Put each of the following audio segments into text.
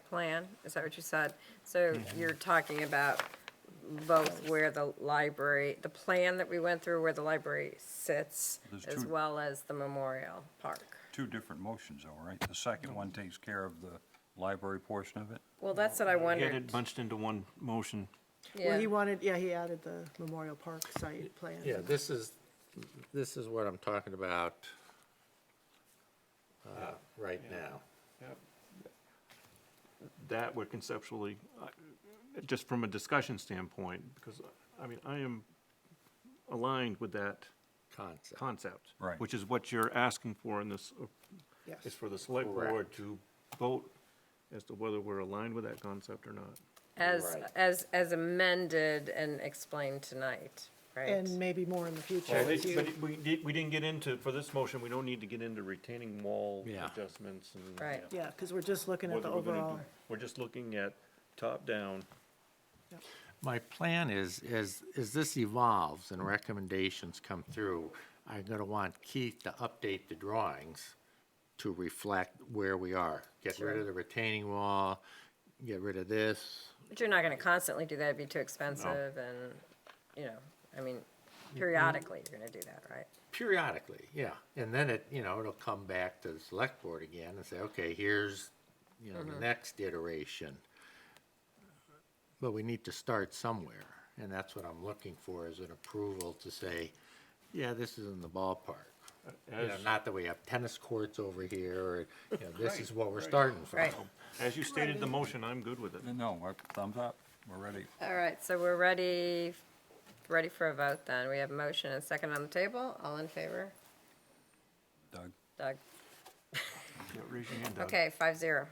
plan, is that what you said? So you're talking about both where the library, the plan that we went through where the library sits, There's as two- well as the memorial park. Two different motions though, right? The second one takes care of the library portion of it? Well, that's what I Get wondered. it bunched into one motion. Well, he Yeah. wanted, yeah, he added the Memorial Park site plan. Yeah, this is, this is what I'm talking about uh, right now. That would conceptually, uh, just from a discussion standpoint, because, I mean, I am aligned with that Concept. concept. Right. Which is what you're asking for in this, uh, Yes. is for the select Correct. board to vote as to whether we're aligned with that concept or not. As, Right. as, as amended and explained tonight, right? And maybe more in the future. Well, as it- you- But it- we did, we didn't get into, for this motion, we don't need to get into retaining wall Yeah. adjustments and. Right. Yeah, because we're just looking at Whether the we're gonna do- overall, We're just looking at top-down. My plan is, is, as this evolves and recommendations come through, I'm gonna want Keith to update the drawings to reflect where we are. Get rid of the retaining wall, get rid of this. But you're not gonna constantly do that, it'd be too expensive and, you know, I mean, periodically you're gonna do that, right? periodically, yeah. And then it, you know, it'll come back to the select board again and say, okay, here's, you know, the next iteration. But we need to start somewhere, and that's what I'm looking for, is an approval to say, yeah, this is in the ballpark. You know, As- not that we have tennis courts over here, or, you know, this is what we're starting from. Right. As you stated the motion, I'm good with it. Uh, No, I- thumbs up, we're ready. All right, so we're ready, ready for a vote then. We have a motion and a second on the table. All in favor? Doug? Doug? Yeah, Raise your hand, Doug. Okay, five zero.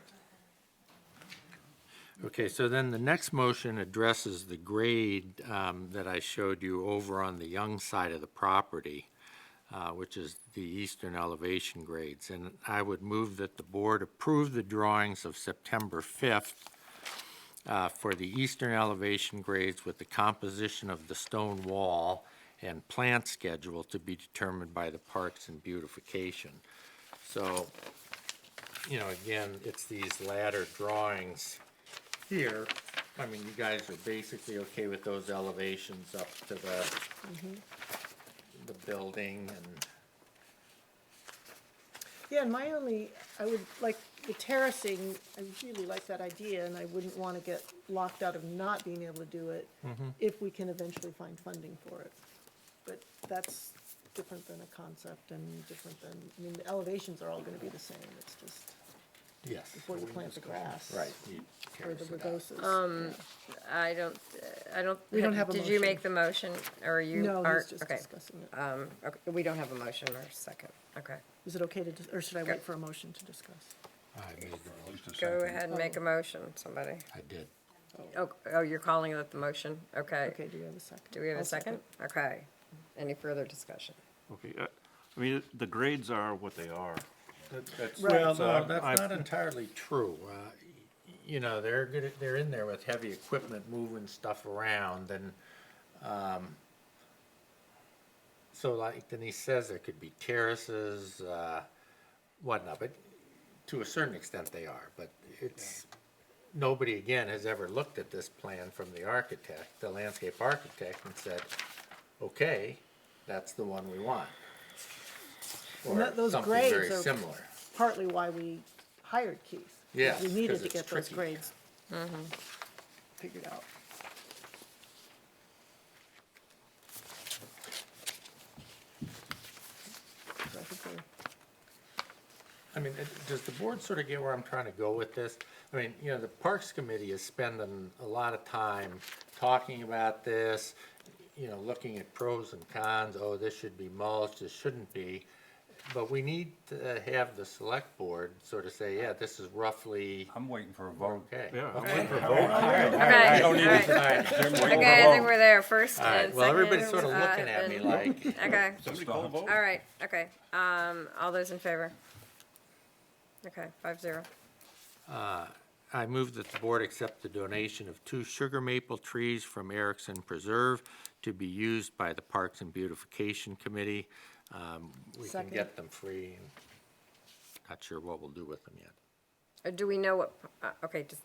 Okay, so then the next motion addresses the grade um, that I showed you over on the young side of the property, uh, which is the eastern elevation grades. And I would move that the board approve the drawings of September 5th uh, for the eastern elevation grades with the composition of the stone wall and plant schedule to be determined by the Parks and Beautification. So, you know, again, it's these latter drawings here, I mean, you guys are basically okay with those elevations up to the, the building and, yeah, and my only, I would like, the terracing, I really like that idea, and I wouldn't want to get locked out of not being able to do it Mm-hmm. if we can eventually find funding for it. But that's different than a concept and different than, I mean, the elevations are all going to be the same, it's just yes. before you plant the grass. Right. you Or the terrace it out. rugosas. Um, I don't, uh, I don't. We don't have a Did you make motion. the motion or you No, are? he's just okay. discussing it. Um, okay, we don't have a motion or second. Okay. Is it okay to, dis- or should I wait for a motion to discuss? I made the- At least a Go second. ahead and make a motion, somebody. I did. Oh, oh, you're calling it the motion? Okay, Okay. do we have a second? Do we have I'll a second? Okay. Any further discussion? Okay, uh, I mean, the grades are what they are. Well, So no, I'm- that's uh, I'm- not entirely true. Uh, y- You know, they're, gonna- they're in there with heavy equipment moving stuff around and, um, so like Denise says, there could be terraces, uh, whatnot, but to a certain extent they are, but it's, nobody again has ever looked at this plan from the architect, the landscape architect and said, okay, that's the one we want. And that- Or those something very grades are- similar. Partly why we hired Keith. 'cause Yes, We needed 'cause to it's get those tricky. grades Mm-hmm. figured out. So I think we're- I mean, it- does the board sort of get where I'm trying to go with this? I mean, you know, the Parks Committee is spending a lot of time talking about this, you know, looking at pros and cons, oh, this should be mulched, this shouldn't be. But we need to have the select board sort of say, yeah, this is roughly I'm waiting for a vote. okay. Yeah. All Okay. all right. right, Okay, I think we're there. First all and right, second. well, everybody's sort of uh, looking at me and- like, Okay. Somebody call a vote? All right, okay, um, all those in favor? Okay, five zero. I move that the board accept the donation of two sugar maple trees from Erickson Preserve to be used by the Parks and Beautification Committee. Um, We can Second. get them free. and Not sure what we'll do with them yet. Uh, Do we know what, uh, okay, just